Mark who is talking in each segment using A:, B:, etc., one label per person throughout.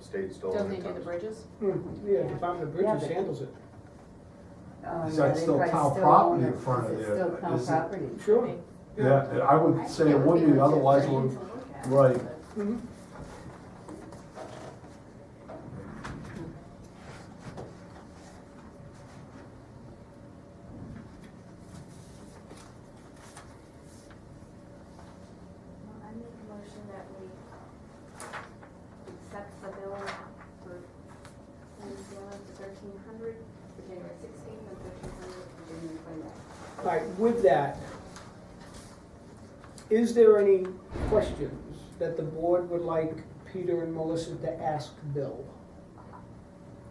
A: state's still.
B: Don't
A: on
B: they
A: it.
B: do the bridges?
C: Hmm, Yeah, Department of
D: Yeah,
C: Bridges
D: but-
C: handles it.
D: Oh,
E: Is
D: yeah,
E: that
D: they
E: still
D: probably
E: town
D: still own
E: property in
D: it,
E: front
D: 'cause
E: of
D: it's
E: it?
D: Still town
E: Is it-
D: property.
C: Sure.
E: Yeah, and I would say it would be, otherwise it would, right.
C: Mhm.
F: Well, I make a motion that we um, accept the bill for Ms. Yellen for thirteen hundred for January sixteenth and thirteen hundred for January twenty-ninth.
C: All right, with that, is there any questions that the board would like Peter and Melissa to ask Bill?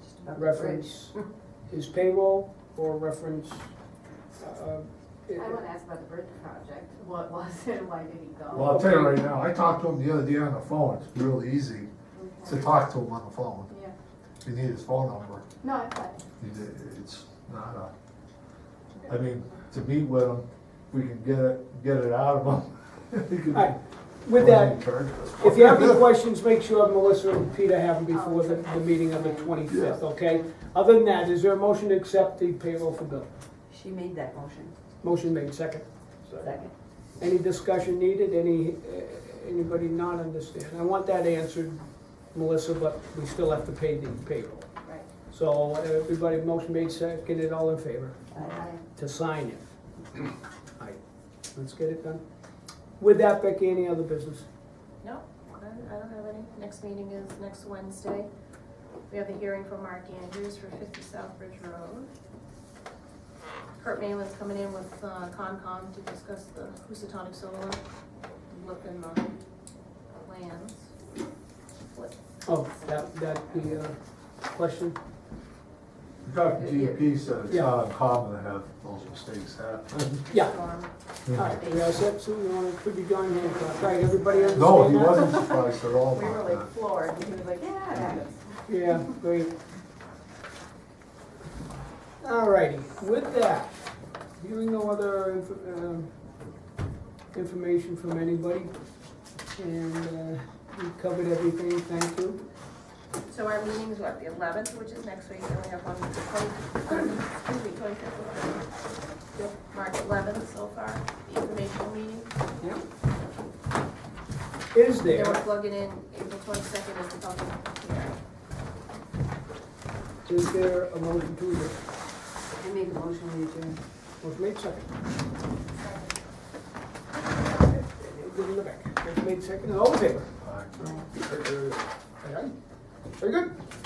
D: Just about the bridge.
C: Reference his payroll or reference, uh, it-
F: I want to ask about the bridge project, what was it, why did he
E: Well,
F: go?
E: I'll tell you right now, I talked to him the other day on the phone, it's real easy to talk to him on the phone.
F: Yeah,
E: If you need his phone number,
F: no, I thought,
E: you- it's not a, I mean, to meet with him, we can get it, get it out of him. He can-
C: All right, with that, If you have any questions, make sure Melissa and Peter have them before the, the meeting on the
D: Oh.
C: twenty-fifth, okay? Other than that, is there a motion to accept the payroll for Bill?
D: She made that motion,
C: Motion made, second.
A: So-
D: second.
C: Any discussion needed, any, uh, anybody not understand? I want that answered, Melissa, but we still have to pay the payroll.
F: right,
C: So everybody, motion made, seconded, all in favor
D: Aye.
C: to sign it. All right, let's get it done. With that, Becky, any other business?
B: No, I don't I don't have any. Next meeting is next Wednesday. We have a hearing for Mark Andrews for 50 Southbridge Road. Kurt Malin's coming in with uh, Concom to discuss the Housatonic Solar, look in the lands. What-
C: Oh, that, that, the uh, question?
E: Dr. GP said it's
C: Yeah.
E: not uncommon to have those mistakes happen.
C: Yeah.
B: Storm.
C: All right, we all set, so we want to, could be John Hancock, all right, everybody understand that?
E: No, he wasn't surprised at all
F: we were
E: about
F: like
E: that.
F: floored, he was like, yeah, that is.
C: Yeah, great. All righty, with that, hearing no other inf- um, information from anybody, and uh, we covered everything, thank you.
B: So our meeting is what, the 11th, which is next week, and we have one, excuse me, 25th. March 11th so far, the informational meeting.
C: Is
B: Then we're
C: there,
B: plugging in April twenty-second as the public hearing.
C: is there a motion to adjourn?
D: I made the motion, we adjourned.
C: Was made second. Give him the back. Was made second, all in favor?
E: All right.
D: Aye.
C: All right. Very good.